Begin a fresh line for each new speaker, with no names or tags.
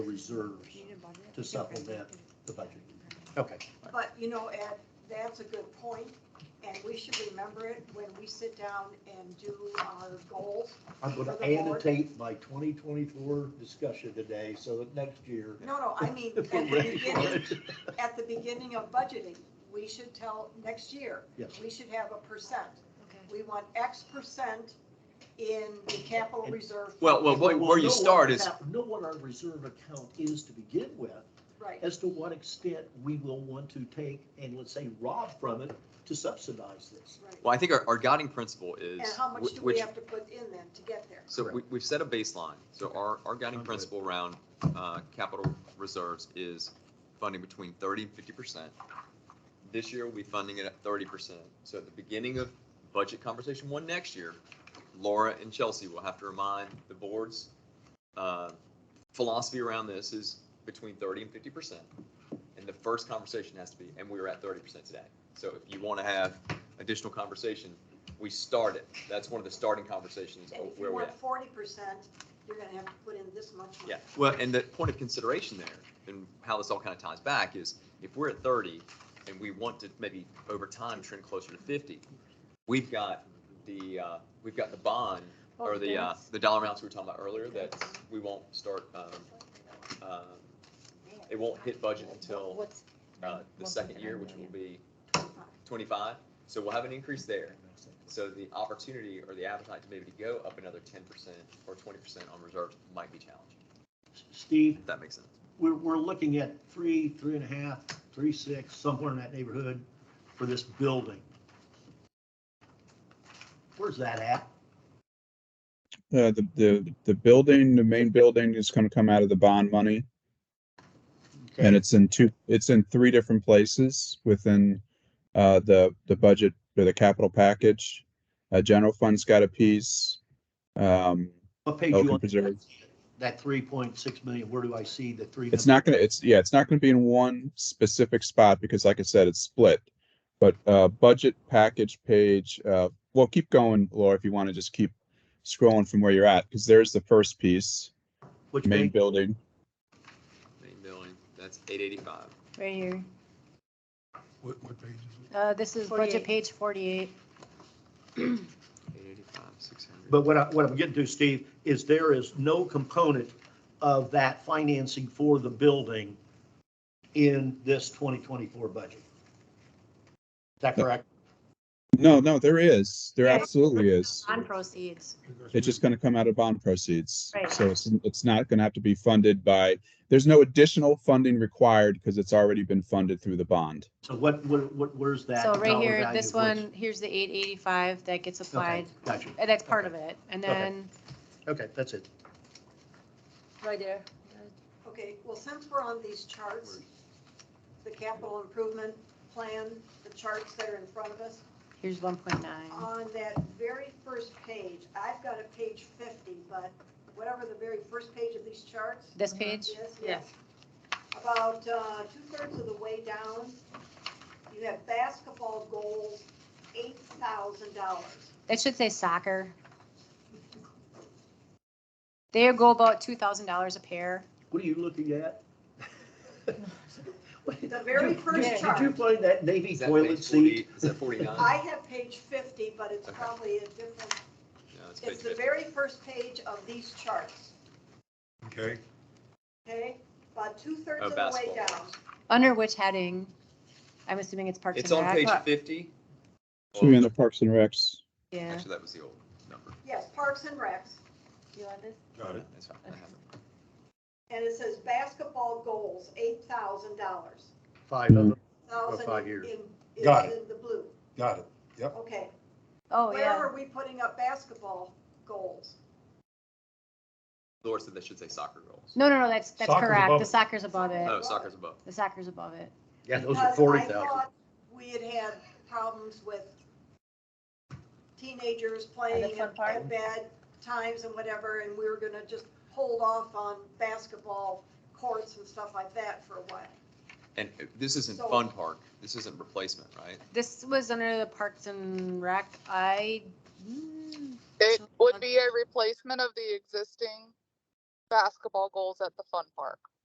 reserves to supplement the budget.
Okay.
But, you know, Ed, that's a good point, and we should remember it when we sit down and do our goals.
I'm going
For
to
the board?
annotate my 2024 discussion today, so that next year.
No, no, I mean, at
we're
the
ready for
beginning,
it.
at the beginning of budgeting, we should tell, next year,
Yes.
we should have a percent. We want X percent in the capital reserve.
Well, well, where where
Well, know
you
what
start is,
account- Know what our reserve account is to begin with,
Right,
as to what extent we will want to take and let's say rob from it to subsidize this.
right.
well, I think our, our guiding principle is.
And how much
wh-
do
which-
we have to put in then to get there?
So we, we've set a baseline. So our, our guiding
Okay.
principle around uh, capital reserves is funding between 30 and 50%. This year, we'll be funding it at 30%. So at the beginning of budget conversation one next year, Laura and Chelsea will have to remind the board's uh, philosophy around this is between 30 and 50%. And the first conversation has to be, and we were at 30% today. So if you want to have additional conversation, we start it. That's one of the starting conversations
And
of
if
Oh, where
you
we're
want
at.
forty percent, you're gonna have to put in this much money.
Yeah, well, and the point of consideration there, and how this all kind of ties back, is if we're at thirty, and we want to maybe over time trend closer to fifty, we've got the, uh, we've got the bond,
Oh,
or the, uh, the dollar amounts we were talking about earlier, that we won't start, um, uh, it won't hit budget until,
What's-
uh, the second year, which will be twenty-five, so we'll have an increase there. So the opportunity or the appetite to maybe to go up another ten percent or twenty percent on reserves might be challenged,
Steve,
if that makes sense.
we're, we're looking at three, three and a half, three, six, somewhere in that neighborhood for this building. Where's that at?
Uh, the, the, the building, the main building is gonna come out of the bond money and it's in two, it's in three different places within, uh, the, the budget or the capital package. Uh, general fund's got a piece. Um,
What page
Open
you on?
preserves.
That three point six million, where do I see the three?
it's not gonna, it's, yeah, it's not gonna be in one specific spot because like I said, it's split. But, uh, budget package page, uh, well, keep going, Laura, if you wanna just keep scrolling from where you're at, because there's the first piece,
Which
main
page?
building.
Main building, that's eight eighty-five.
Right here.
What, what page is it?
Uh, this is budget
48.
page forty-eight.
Eight eighty-five, six hundred.
But what I, what I'm getting to, Steve, is there is no component of that financing for the building in this twenty twenty-four budget. Is that
No.
correct?
No, no, there is. There
Yeah.
absolutely is.
On proceeds.
Because
It's just going to come out of bond proceeds.
Right.
So it's, it's not going to have to be funded by, there's no additional funding required because it's already been funded through the bond.
So what, what, what, where's that?
So right
dollar
here,
value
this
of what's-
one, here's the eight eighty-five that gets
Okay,
applied.
Gotcha.
And that's part of it. And
Okay.
then,
Okay, that's it.
Right there.
Okay, well, since we're on these charts, the capital improvement plan, the charts that are in front of us,
here's one point nine.
on that very first page, I've got a page fifty, but whatever the very first page of these charts.
This page,
Yes, yes. About uh, two-thirds of the way down, you have basketball goals, eight thousand dollars.
that should say soccer. They go about two thousand dollars a pair.
What are you looking at? What-
The very
did you-
first
Did you
chart.
find that Navy toilet seat?
Is that forty-nine?
I have page fifty, but it's
Okay.
probably a different,
No, it's page
it's the
50.
very first page of these charts,
Okay,
okay? About two-thirds
Oh,
of the way
basketball.
down.
Under which heading? I'm assuming it's Parks
It's
and
on
Rec.
page
but-
fifty.
So you're in the Parks and Recs.
Yeah.
Actually, that was the old number.
Yes, Parks and Recs,
You want this?
got it.
That's fine. I have it.
and it says basketball goals, eight thousand dollars.
Five of them.
Thousand
five
in,
years.
is
Got it.
in the blue,
Got it.
okay.
Oh,
Where
yeah.
are we putting up basketball goals?
Laura said that should say soccer goals.
No, no, no, that's, that's
Soccer's
correct.
above
The
it.
soccer's above it.
Oh, soccer's above.
The soccer's above it.
Yeah, those are
Because I
forty thousand.
thought We had had problems with teenagers playing
fun
at
part?
at bad times and whatever, and we were gonna just hold off on basketball courts and stuff like that for a while.
And uh, this isn't
So-
Fun Park. This isn't replacement, right?
This was under the Parks and Rec. I, hmm, mm,
It would be a replacement of the existing basketball goals at the fun park.